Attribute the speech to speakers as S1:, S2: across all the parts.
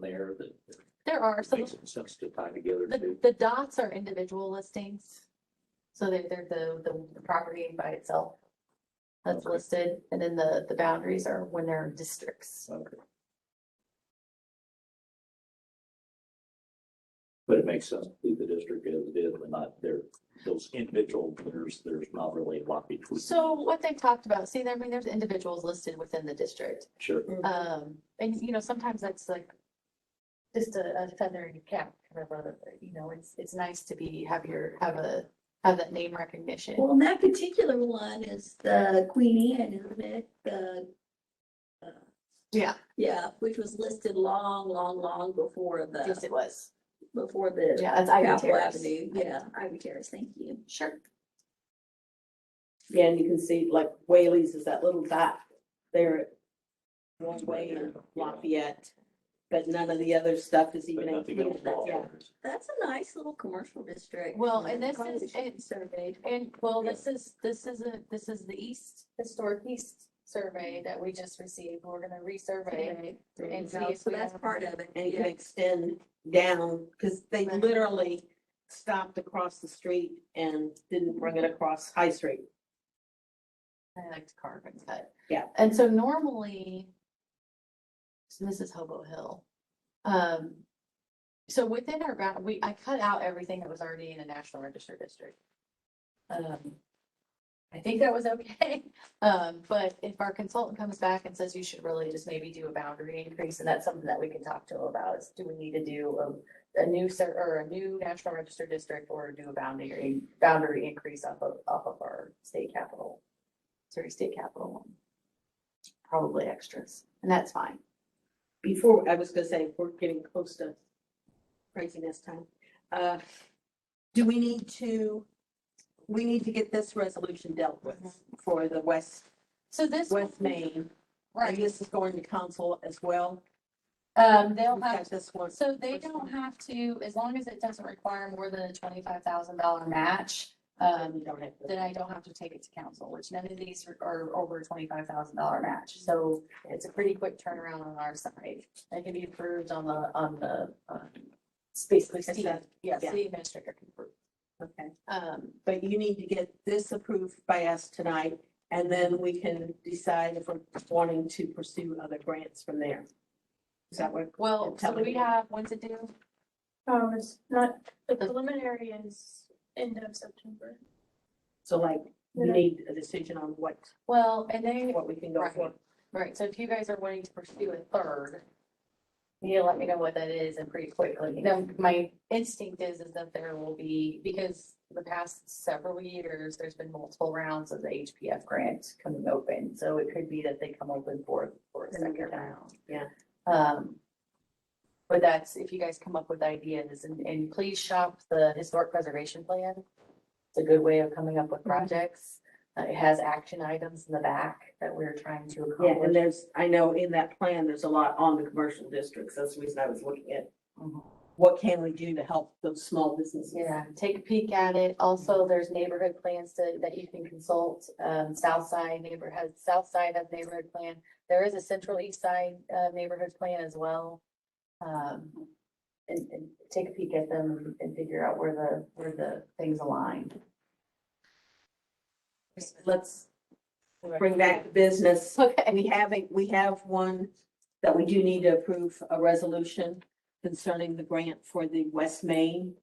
S1: there that
S2: There are some,
S1: makes it sense to tie together
S2: the,
S1: too?
S2: the dots are individual listings. So they're, they're the, the- the property by itself. That's
S1: Okay.
S2: listed, and then the, the boundaries are when they're districts.
S1: Okay. But it makes sense to leave the district as it is, but not there, those individual, there's, there's not really a lot between.
S2: So what they talked about, see, I mean, there's individuals listed within the district.
S1: Sure,
S2: Um, and you know, sometimes that's like just a, a feather in your cap, kind of, a- you know, it's, it's nice to be, have your, have a, have that name recognition.
S3: Well, and that particular one is the Queen Anne, isn't it? The,
S2: Yeah,
S3: yeah, which was listed long, long, long before
S2: yes,
S3: the,
S2: it was.
S3: before the
S2: Yeah, that's Ivy
S3: Capitol
S2: Terrace.
S3: Avenue. Yeah, Ivy Terrace, thank you.
S2: Sure.
S4: Yeah, and you can see like Whaley's is that little dot there. at One way in Lafayette, but none of the other stuff is
S1: but
S4: even
S1: nothing else.
S4: included. Yeah.
S3: That's a nice little commercial district.
S2: Well, and
S3: Yeah,
S2: this
S3: probably
S2: is-
S3: should be
S2: it-
S3: Surveyed.
S2: And well, this is, this is a, this is the east, historic east survey that we just received. We're gonna resurvey. And see
S3: No,
S2: if
S3: So
S2: we
S3: that's
S2: have-
S3: part of it.
S4: And you can
S3: Yeah.
S4: extend down, because they
S2: Right.
S4: literally stopped across the street and didn't bring it across High Street.
S2: I like to carve and cut.
S4: Yeah.
S2: And so normally, so this is Hobo Hill. Um, so within our bound, we, I cut out everything that was already in a national register district. Um, I think that was okay. Um, but if our consultant comes back and says you should really just maybe do a boundary increase, and that's something that we can talk to them about, is do we need to do a, a new ser, or a new national register district or do a boundary, boundary increase off of, off of our state capital? Missouri State Capitol one. Probably extras, and that's fine.
S4: Before, I was gonna say, we're getting close to craziness time. Uh, Do we need to, we need to get this resolution dealt with for the West,
S2: So this.
S4: West Main. And
S2: Right,
S4: this is going to council as well.
S2: um, they'll
S4: We've
S2: have,
S4: got This one.
S2: so they don't have to, as long as it doesn't require more than a twenty-five thousand dollar match, um,
S4: don't have to-
S2: then I don't have to take it to council, which none of these are- are over a twenty-five thousand dollar match. So it's a pretty quick turnaround on our side. That can be approved on the, on the, um, it's basically, city-
S4: Consent,
S2: yeah,
S4: yeah.
S2: city administrator can approve.
S4: Okay,
S2: Um,
S4: but you need to get this approved by us tonight, and then we can decide if we're wanting to pursue other grants from there. Is that what?
S2: well,
S4: And
S2: so
S4: tell me.
S2: we have, when's it due?
S5: Um, it's not, the
S2: The-
S5: preliminary is end of September.
S4: So like, we
S5: Yeah.
S4: need a decision on what,
S2: Well, and they,
S4: what we can go for.
S2: Right, so if you guys are wanting to pursue a third, you need to let me know what that is and pretty quickly. Now, my instinct is, is that there will be, because the past several years, there's been multiple rounds of the HPF grant coming open. So it could be that they come open for, for a second round.
S4: Yeah.
S2: Um, but that's, if you guys come up with ideas and, and please shop the historic preservation plan. It's a good way of coming up
S4: Mm-hmm.
S2: with projects. Uh, It has action items in the back that we're trying to
S4: Yeah, and
S2: accomplish.
S4: there's, I know in that plan, there's a lot on the commercial districts. That's the reason I was looking at
S2: Mhm.
S4: what can we do to help those small businesses?
S2: Yeah, take a peek at it. Also, there's neighborhood plans to, that you can consult, um, south side neighborhood, south side of neighborhood plan. There is a central east side, uh, neighborhood plan as well. Um, and, and take a peek at them and figure out where the, where the things align.
S4: Let's bring back the business.
S2: Okay,
S4: And we have, a- we have one that we do need to approve a resolution concerning the grant for the West Main.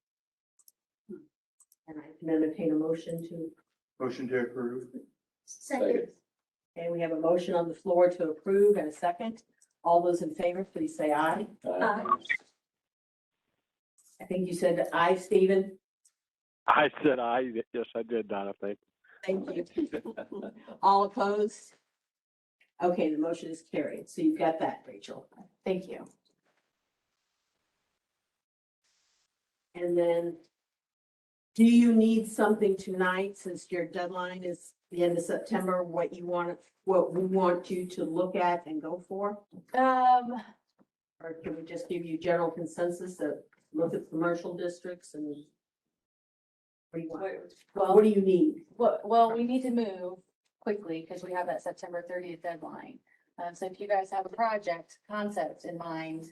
S4: And I can entertain a motion to,
S6: Motion to approve.
S3: Second.
S4: okay, we have a motion on the floor to approve and a second. All those in favor, please say aye.
S1: Uh,
S4: I think you said aye, Stephen.
S7: I said I, yes, I did, Donna, thank
S4: Thank you. All opposed? Okay, the motion is carried. So you've got that, Rachel.
S2: thank you.
S4: And then, do you need something tonight, since your deadline is the end of September, what you want, what we want you to look at and go for?
S2: Um,
S4: Or can we just give you general consensus that look at commercial districts and what do you want?
S2: well.
S4: What do you need?
S2: Well, well, we need to move quickly because we have that September thirtieth deadline. Um, so if you guys have a project concept in mind